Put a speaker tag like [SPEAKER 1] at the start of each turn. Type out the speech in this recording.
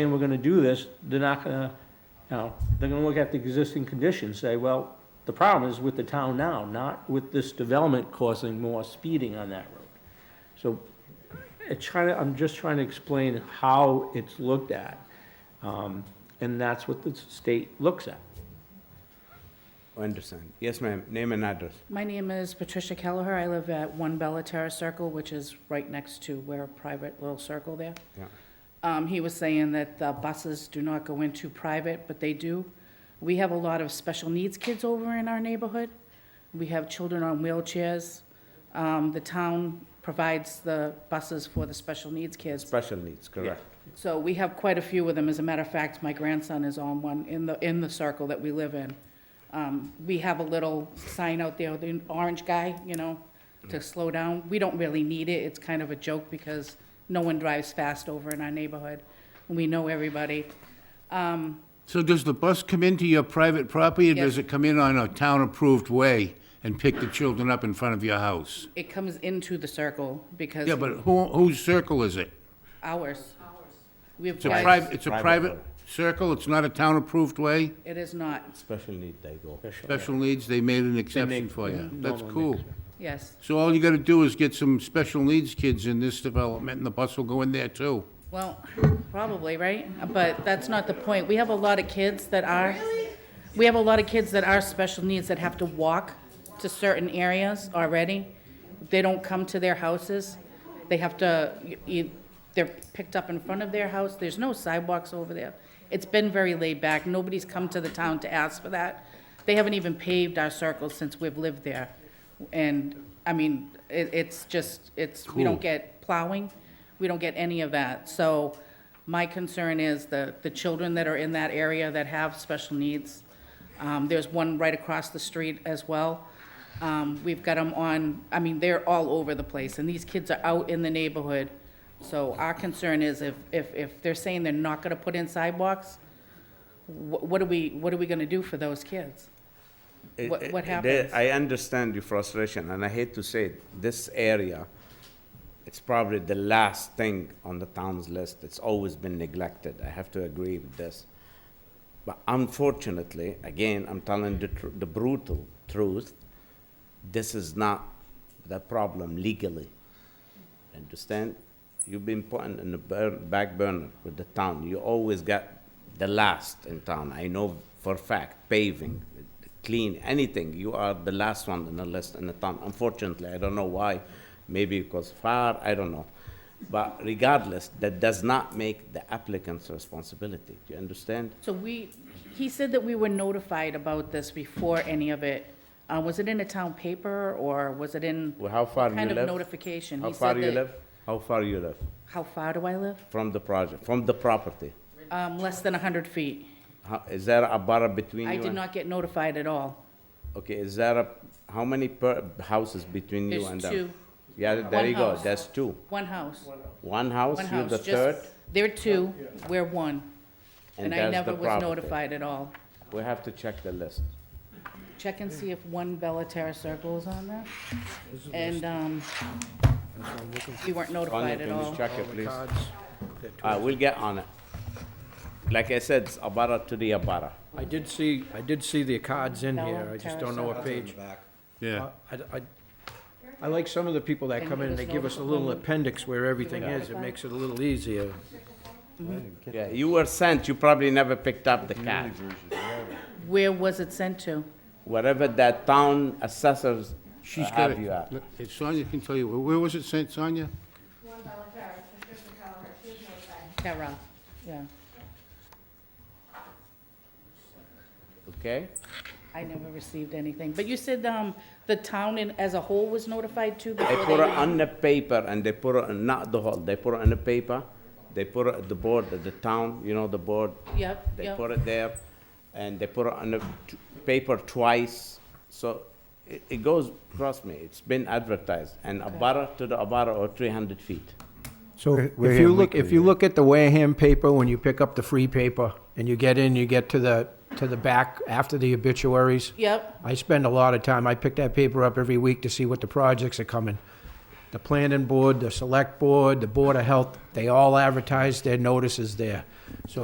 [SPEAKER 1] saying we're gonna do this, they're not gonna, you know, they're gonna look at the existing conditions, say, well, the problem is with the town now, not with this development causing more speeding on that road. So, it's trying to, I'm just trying to explain how it's looked at, um, and that's what the state looks at.
[SPEAKER 2] Understand. Yes, ma'am. Name and address.
[SPEAKER 3] My name is Patricia Kelleher. I live at One Bella Terrace Circle, which is right next to where a private little circle there.
[SPEAKER 2] Yeah.
[SPEAKER 3] Um, he was saying that the buses do not go into private, but they do. We have a lot of special needs kids over in our neighborhood. We have children on wheelchairs. Um, the town provides the buses for the special needs kids,
[SPEAKER 2] Special needs, correct.
[SPEAKER 3] so we have quite a few of them. As a matter of fact, my grandson is on one in the, in the circle that we live in. Um, we have a little sign out there, the orange guy, you know,
[SPEAKER 4] Mm-hmm.
[SPEAKER 3] to slow down. We don't really need it. It's kind of a joke because no one drives fast over in our neighborhood. We know everybody.
[SPEAKER 4] So does the bus come into your private property, or does
[SPEAKER 3] Yes.
[SPEAKER 4] it come in on a town-approved way and pick the children up in front of your house?
[SPEAKER 3] It comes into the circle because
[SPEAKER 4] Yeah, but who, whose circle is it?
[SPEAKER 3] ours. We have
[SPEAKER 4] It's a
[SPEAKER 3] guys-
[SPEAKER 4] private, it's a
[SPEAKER 2] Private
[SPEAKER 4] private
[SPEAKER 2] road.
[SPEAKER 4] circle, it's not a town-approved way?
[SPEAKER 3] It is not,
[SPEAKER 2] Special need, they go.
[SPEAKER 4] Special needs, they made an exception
[SPEAKER 1] make-
[SPEAKER 4] for you.
[SPEAKER 1] yeah,
[SPEAKER 4] That's
[SPEAKER 1] normally
[SPEAKER 4] cool.
[SPEAKER 1] makes
[SPEAKER 3] yes.
[SPEAKER 4] So all you gotta do is get some special needs kids in this development, and the bus will go in there too.
[SPEAKER 3] Well, probably, right? But that's not the point. We have a lot of kids that are, we have a lot of kids that are special needs that have to walk to certain areas already. They don't come to their houses. They have to, e- they're picked up in front of their house. There's no sidewalks over there. It's been very laid back. Nobody's come to the town to ask for that. They haven't even paved our circles since we've lived there. And, I mean, it, it's just, it's, we don't
[SPEAKER 4] Cool.
[SPEAKER 3] get get plowing. We don't get any of that. So my concern is the, the children that are in that area that have special needs. Um, there's one right across the street as well. Um, we've got them on, I mean, they're all over the place and these kids are out in the neighborhood. So our concern is if, if, if they're saying they're not gonna put in sidewalks, wh- what are we, what are we gonna do for those kids? What- what happens?
[SPEAKER 2] I understand your frustration, and I hate to say it, this area, it's probably the last thing on the town's list. It's always been neglected. I have to agree with this. But unfortunately, again, I'm telling the, tr- the brutal truth, this is not the problem legally. Understand? You've been putting in the bur- back burner with the town. You always got the last in town. I know for a fact, paving, clean, anything. You are the last one in the list in the town. Unfortunately, I don't know why. Maybe because far, I don't know. But regardless, that does not make the applicant's responsibility. Do you understand?
[SPEAKER 3] So we, he said that we were notified about this before any of it. Uh, was it in a town paper or was it in?
[SPEAKER 2] Well, how far you
[SPEAKER 3] Kind
[SPEAKER 2] live?
[SPEAKER 3] of notification.
[SPEAKER 2] How
[SPEAKER 3] He
[SPEAKER 2] far
[SPEAKER 3] said
[SPEAKER 2] you
[SPEAKER 3] that-
[SPEAKER 2] live? How far you live
[SPEAKER 3] How far do I live?
[SPEAKER 2] from the project, from the property?
[SPEAKER 3] Um, less than hundred feet.
[SPEAKER 2] How- Is there a bar between you
[SPEAKER 3] I
[SPEAKER 2] and?
[SPEAKER 3] did not get notified at all.
[SPEAKER 2] Okay, is there a, how many per, houses between you
[SPEAKER 3] There's
[SPEAKER 2] and them?
[SPEAKER 3] two.
[SPEAKER 2] Yeah, there
[SPEAKER 3] One
[SPEAKER 2] you go,
[SPEAKER 3] house.
[SPEAKER 2] that's two.
[SPEAKER 3] One house,
[SPEAKER 2] One house,
[SPEAKER 3] one
[SPEAKER 2] you're
[SPEAKER 3] house,
[SPEAKER 2] the
[SPEAKER 3] just.
[SPEAKER 2] third,
[SPEAKER 3] There are two, we're one.
[SPEAKER 2] and
[SPEAKER 3] And
[SPEAKER 2] that's
[SPEAKER 3] I
[SPEAKER 2] the
[SPEAKER 3] never was
[SPEAKER 2] property.
[SPEAKER 3] notified at all.
[SPEAKER 2] We have to check the list.
[SPEAKER 3] Check and see if one Bella Terra Circle is on there. And, um, we weren't
[SPEAKER 2] Sonia,
[SPEAKER 3] notified at
[SPEAKER 2] can
[SPEAKER 3] all.
[SPEAKER 2] you check it, please? Uh, we'll get on it. Like I said, it's abara to the abara.
[SPEAKER 5] I did see, I did see the cards in here, I just don't know what page.
[SPEAKER 4] Yeah.
[SPEAKER 5] I- I- I like some of the people that come in and they give us a little appendix where everything is, it makes it a little easier.
[SPEAKER 2] Yeah, you were sent, you probably never picked up the card.
[SPEAKER 3] Where was it sent to?
[SPEAKER 2] Wherever that town assessors
[SPEAKER 4] She's got
[SPEAKER 2] have you
[SPEAKER 4] it.
[SPEAKER 2] at.
[SPEAKER 4] Look, if Sonia can tell you, where was it sent, Sonia?
[SPEAKER 6] One dollar charge, Patricia Cowher, she was notified.
[SPEAKER 3] Terra, yeah.
[SPEAKER 2] okay?
[SPEAKER 3] I never received anything, but you said, um, the town in, as a whole was notified too
[SPEAKER 2] They
[SPEAKER 3] before they.
[SPEAKER 2] put it on the paper and they put it, in- not the whole, they put it on the paper, they put it at the board, at the town, you know, the board.
[SPEAKER 3] Yep,
[SPEAKER 2] They
[SPEAKER 3] yep.
[SPEAKER 2] put it there and they put it on the t- paper twice. So it, it goes, trust me, it's been advertised and a barra to the abara or three hundred feet.
[SPEAKER 5] So if you look, if you look at the Wareham paper, when you pick up the free paper, and you get in, you get to the, to the back after the obituaries.
[SPEAKER 3] Yep,
[SPEAKER 5] I spend a lot of time, I pick that paper up every week to see what the projects are coming. the planning board, the select board, the board of health, they all advertise their notices there. So